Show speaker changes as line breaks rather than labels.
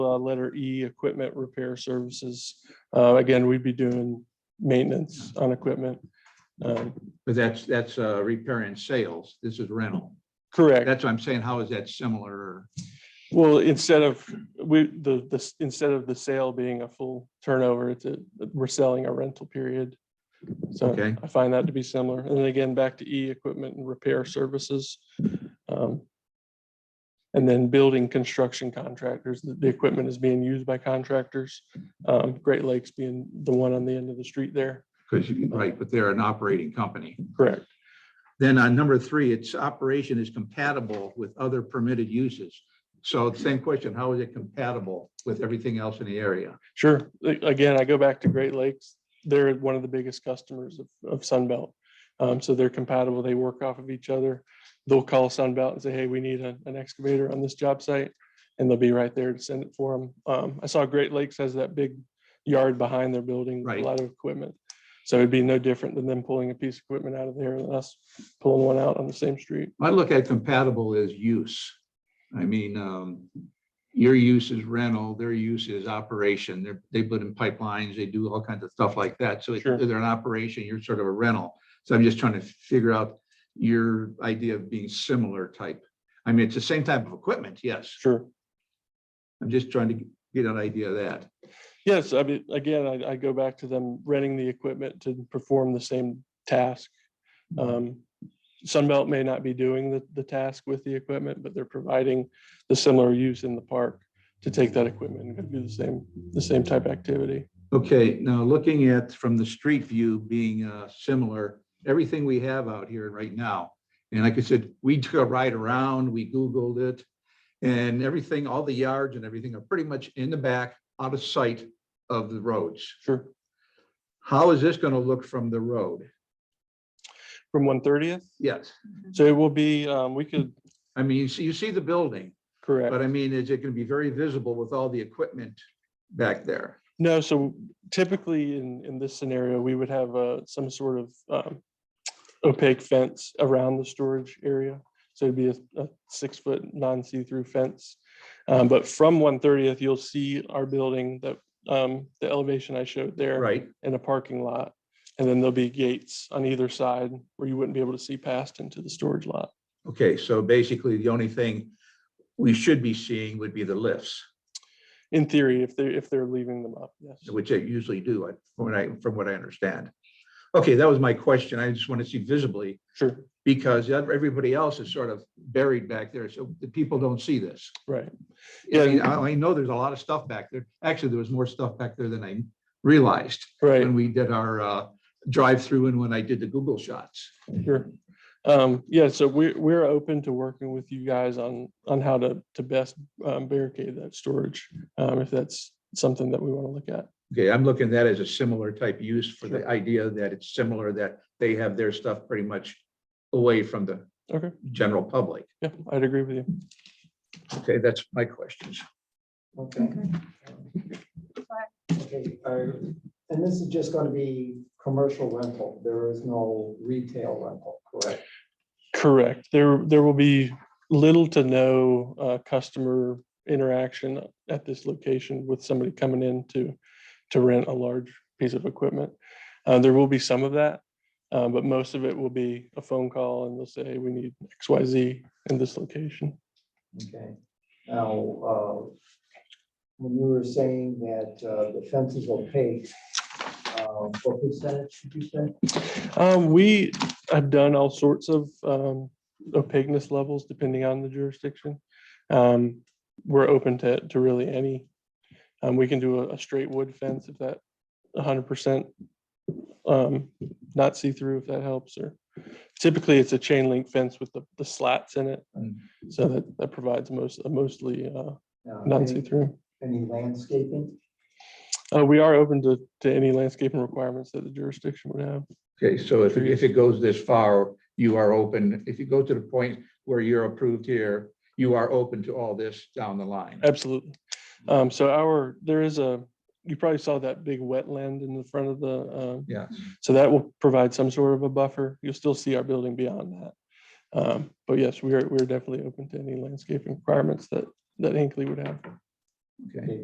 uh, letter E, equipment repair services. Uh, Again, we'd be doing maintenance on equipment. Um,
But that's, that's uh, repair and sales. This is rental.
Correct.
That's what I'm saying. How is that similar? or-
Well, instead of, we, the, the, instead of the sale being a full turnover, it's a, we're selling a rental period. So
Okay.
I find that to be similar. And then again, back to E, equipment and repair services. Um, And then building construction contractors, the, the equipment is being used by contractors. Um, Great Lakes being the one on the end of the street there.
Because you, right, but they're an operating company.
Correct.
Then on number three, its operation is compatible with other permitted uses. So same question, how is it compatible with everything else in the area?
Sure. A- Again, I go back to Great Lakes. They're one of the biggest customers of, of Sunbelt. Um, so they're compatible. They work off of each other. They'll call Sunbelt and say, hey, we need a- an excavator on this job site. And they'll be right there to send it for them. Um, I saw Great Lakes has that big yard behind their building, with a
Right.
lot of equipment. So it'd be no different than them pulling a piece of equipment out of there and us pulling one out on the same street.
I look at compatible as use. I mean, um, your use is rental, their use is operation. They're, they put in pipelines, they do all kinds of stuff like that. So if
Sure.
they're an operation, you're sort of a rental. So I'm just trying to figure out your idea of being similar type. I mean, it's the same type of equipment, yes.
Sure.
I'm just trying to get an idea of that.
Yes, I mean, again, I, I go back to them renting the equipment to perform the same task. Um, Sunbelt may not be doing the, the task with the equipment, but they're providing the similar use in the park to take that equipment and do the same, the same type activity.
Okay, now looking at from the street view being uh, similar, everything we have out here right now. And like I said, we took a ride around, we Googled it. And everything, all the yards and everything are pretty much in the back, out of sight of the roads.
Sure.
How is this going to look from the road?
From one thirtieth,
Yes,
so it will be, um, we could,
I mean, you see, you see the building,
correct.
but I mean, is it going to be very visible with all the equipment back there?
No, so typically in, in this scenario, we would have uh, some sort of um, opaque fence around the storage area. So it'd be a, a six-foot non-see-through fence. Um, But from 130th, you'll see our building, that um, the elevation I showed there.
Right,
And a parking lot. And then there'll be gates on either side where you wouldn't be able to see past into the storage lot.
okay, so basically the only thing we should be seeing would be the lifts.
In theory, if they're, if they're leaving them up, yes.
which they usually do, I- from what I, from what I understand. Okay, that was my question. I just want to see visibly
Sure,
because ev- everybody else is sort of buried back there, so the people don't see this.
right.
I
Yeah.
mean, I, I know there's a lot of stuff back there. Actually, there was more stuff back there than I realized
Right.
when we did our uh, drive-through and when I did the Google shots.
Sure. Um, yeah, so we're, we're open to working with you guys on, on how to, to best um, barricade that storage. Um, if that's something that we want to look at.
Okay, I'm looking at that as a similar type use for the
Sure.
idea that it's similar, that they have their stuff pretty much away from the
Okay,
general public.
yeah, I'd agree with you.
Okay, that's my questions.
Okay. Okay, uh, and this is just going to be commercial rental. There is no retail rental, correct?
Correct. There, there will be little to no uh, customer interaction at this location with somebody coming in to, to rent a large piece of equipment. Uh, There will be some of that, uh, but most of it will be a phone call and they'll say, "Hey, we need X, Y, Z in this location.
Okay. Now, uh, when you were saying that uh, the fence is opaque, uh, what percentage should you say?
Um, we have done all sorts of, um, opaqueness levels depending on the jurisdiction. Um, we're open to, to really any. Um, we can do a, a straight wood fence if that hundred percent, um, not see-through if that helps, or typically it's a chain link fence with the, the slats in it.
Mm.
So that, that provides most, mostly, uh,
Uh,
not
any-
see-through.
Any landscaping?
Uh, we are open to, to any landscaping requirements that the jurisdiction would have.
Okay, so if, if it goes this far, you are open, if you go to the point where you're approved here, you are open to all this down the line.
Absolutely. Um, so our, there is a, you probably saw that big wetland in the front of the, um,
Yeah,
so that will provide some sort of a buffer. You'll still see our building beyond that. Um, but yes, we are, we're definitely open to any landscaping requirements that, that Hinkley would have.
Okay.